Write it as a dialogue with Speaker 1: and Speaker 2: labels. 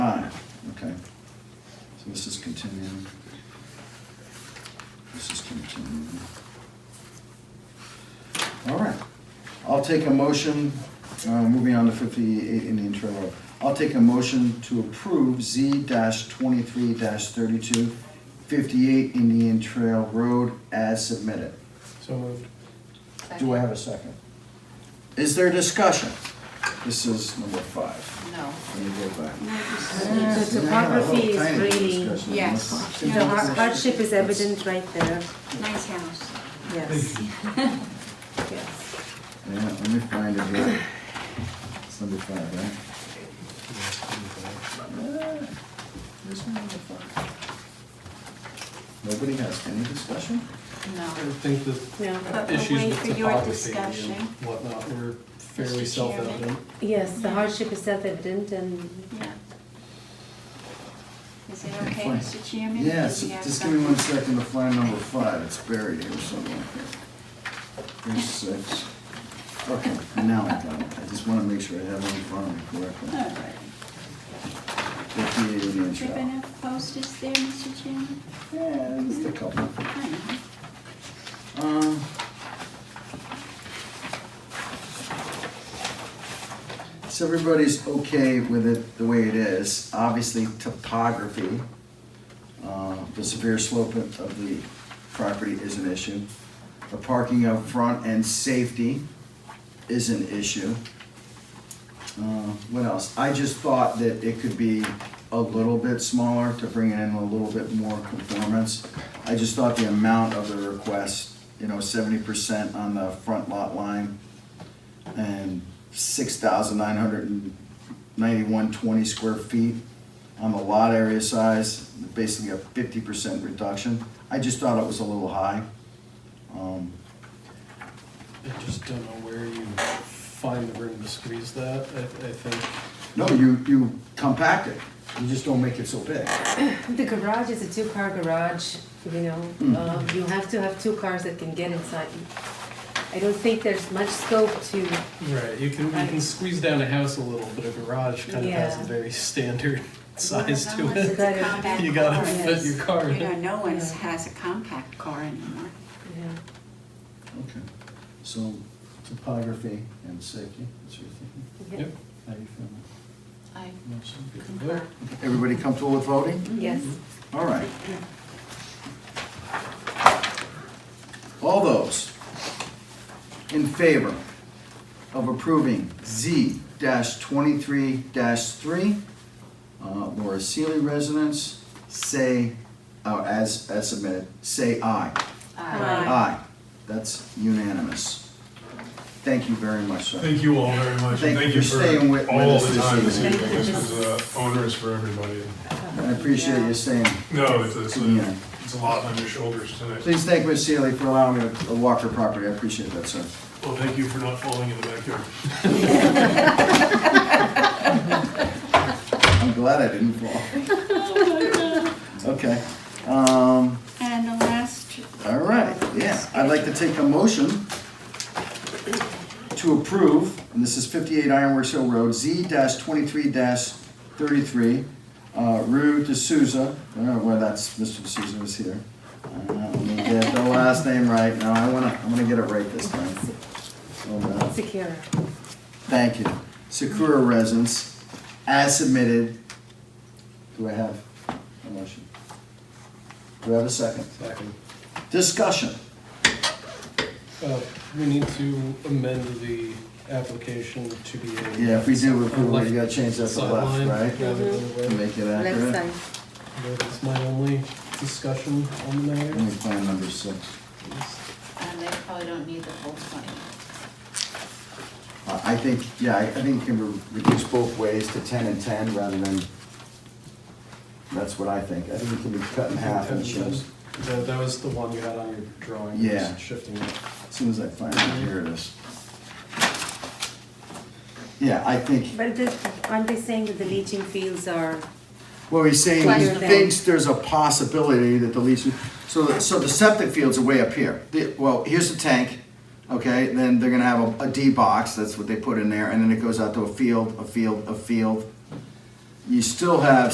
Speaker 1: Okay. So this is continuing. This is continuing. All right. I'll take a motion, uh, moving on to fifty-eight Indian Trail Road. I'll take a motion to approve Z twenty-three 32 58 Indian Trail Road as submitted.
Speaker 2: So moved.
Speaker 1: Do I have a second? Is there discussion? This is number five.
Speaker 3: No.
Speaker 1: Let me go back. Uh,
Speaker 4: The topography is really,
Speaker 3: Yes.
Speaker 4: the har- hardship is evident right there,
Speaker 3: Nice house.
Speaker 4: yes. Yes.
Speaker 1: Yeah, let me find it here. It's number five, right?
Speaker 4: Uh,
Speaker 1: Yeah, This one, number five. Nobody has any discussion?
Speaker 3: No.
Speaker 2: I would think the
Speaker 4: No.
Speaker 3: But we'll
Speaker 2: issues
Speaker 3: wait
Speaker 2: with
Speaker 3: for your
Speaker 2: topography
Speaker 3: discussion.
Speaker 2: and whatnot were fairly
Speaker 3: Mr. Chairman.
Speaker 2: self-evident.
Speaker 4: Yes, the hardship is self-evident and
Speaker 3: Yeah. Is it okay,
Speaker 1: Fine.
Speaker 3: Mr. Chairman?
Speaker 1: Yes,
Speaker 3: Do we have
Speaker 1: just give me one
Speaker 3: something?
Speaker 1: second to find number five, it's buried here somewhere. Here's six. Okay, now I got it, I just wanna make sure I have it in front of me
Speaker 3: All
Speaker 1: correctly.
Speaker 3: right.
Speaker 1: Fifty-eight Indian
Speaker 3: Is there
Speaker 1: Trail.
Speaker 3: enough posters there, Mr. Chairman?
Speaker 1: Yeah, just a couple.
Speaker 3: I know.
Speaker 1: Um. So everybody's okay with it the way it is. Obviously topography, uh, the severe slope of of the property is an issue. The parking up front and safety is an issue. Uh, What else? I just thought that it could be a little bit smaller to bring it in a little bit more conformance. I just thought the amount of the request, you know, seventy percent on the front lot line and six thousand nine hundred and ninety-one twenty square feet on the lot area size, basically a fifty percent reduction. I just thought it was a little high. Um,
Speaker 2: I just don't know where you find the room to squeeze that. I, I think,
Speaker 1: No, you, you compact it, you just don't make it so big.
Speaker 4: the garage is a two-car garage, you know, uh, you have to have two cars that can get inside. I don't think there's much scope to,
Speaker 2: right, you can, you can
Speaker 4: Right.
Speaker 2: squeeze down a house a little, but a garage kind of has a
Speaker 4: Yeah.
Speaker 2: very standard size
Speaker 3: Well,
Speaker 2: to
Speaker 3: unless
Speaker 2: it.
Speaker 3: it's a compact
Speaker 2: You gotta
Speaker 3: car.
Speaker 2: fit your car
Speaker 3: You know,
Speaker 2: in.
Speaker 3: no one
Speaker 4: Yeah.
Speaker 3: has a compact car anymore.
Speaker 4: you know,
Speaker 1: Okay, so topography and safety, that's your thinking,
Speaker 4: yeah.
Speaker 2: Yep.
Speaker 1: how you feeling?
Speaker 3: I
Speaker 2: Well,
Speaker 1: Everybody comfortable with voting?
Speaker 4: yes.
Speaker 1: All right. All those in favor of approving Z twenty-three three, uh, Laura Seeley residence, say, uh, as, as submitted, say aye.
Speaker 3: Aye.
Speaker 1: Aye, that's unanimous. Thank you very much, sir.
Speaker 5: Thank you all very much, and
Speaker 1: Thank
Speaker 5: thank
Speaker 1: you
Speaker 5: you
Speaker 1: for staying
Speaker 5: for
Speaker 1: with- with
Speaker 5: all
Speaker 1: us
Speaker 5: the
Speaker 1: this
Speaker 5: time this
Speaker 1: evening.
Speaker 5: evening. This was uh, onerous for everybody.
Speaker 1: I appreciate you staying.
Speaker 5: No, it's, it's,
Speaker 1: Yeah.
Speaker 5: a- it's a lot on your shoulders tonight.
Speaker 1: Please thank Ms. Sealy for allowing me to walk her property, I appreciate that, sir.
Speaker 5: Well, thank you for not falling in the backyard.
Speaker 1: I'm glad I didn't fall. Okay, um,
Speaker 3: And the last. uh,
Speaker 1: all right, yeah, I'd like to take a motion to approve, and this is fifty-eight Ironworks Hill Road, Z twenty-three thirty-three, uh, Rue De Souza, I don't know where that's, Mr. De Souza was here. Uh, Let me get the last name right, now I wanna, I'm gonna get it right this time. Hold on.
Speaker 4: Secure.
Speaker 1: Thank you. Sakura Residence, as submitted. Do I have a motion? Do I have a second?
Speaker 2: Second.
Speaker 1: Discussion.
Speaker 2: Uh, We need to amend the application to be a.
Speaker 1: Yeah, if we do approve,
Speaker 2: Left
Speaker 1: we gotta change that to
Speaker 2: sideline
Speaker 1: left, right?
Speaker 2: rather than
Speaker 3: Mm-hmm.
Speaker 2: the way.
Speaker 1: Make it
Speaker 4: Left
Speaker 1: accurate.
Speaker 4: side.
Speaker 2: That's my only discussion on the
Speaker 1: Let me
Speaker 2: matter.
Speaker 1: find number six.
Speaker 3: And they probably don't need the whole twenty.
Speaker 1: Uh, I I think, yeah, I I think it can be reduced both ways to ten and ten rather than, that's what I think. I think it can be cut in half and shows.
Speaker 2: That, that was the one you had on your drawing, just
Speaker 1: Yeah.
Speaker 2: shifting it.
Speaker 1: As soon as I find it, here it is. Yeah, I think
Speaker 4: But the- aren't they saying that the leaching fields are,
Speaker 1: Well, he's saying he
Speaker 4: Flatter than.
Speaker 1: thinks there's a possibility that the leach, so, so the septic fields are way up here. The- Well, here's the tank, okay, and then they're gonna have a, a D box, that's what they put in there, and then it goes out to a field, a field, a field. You still have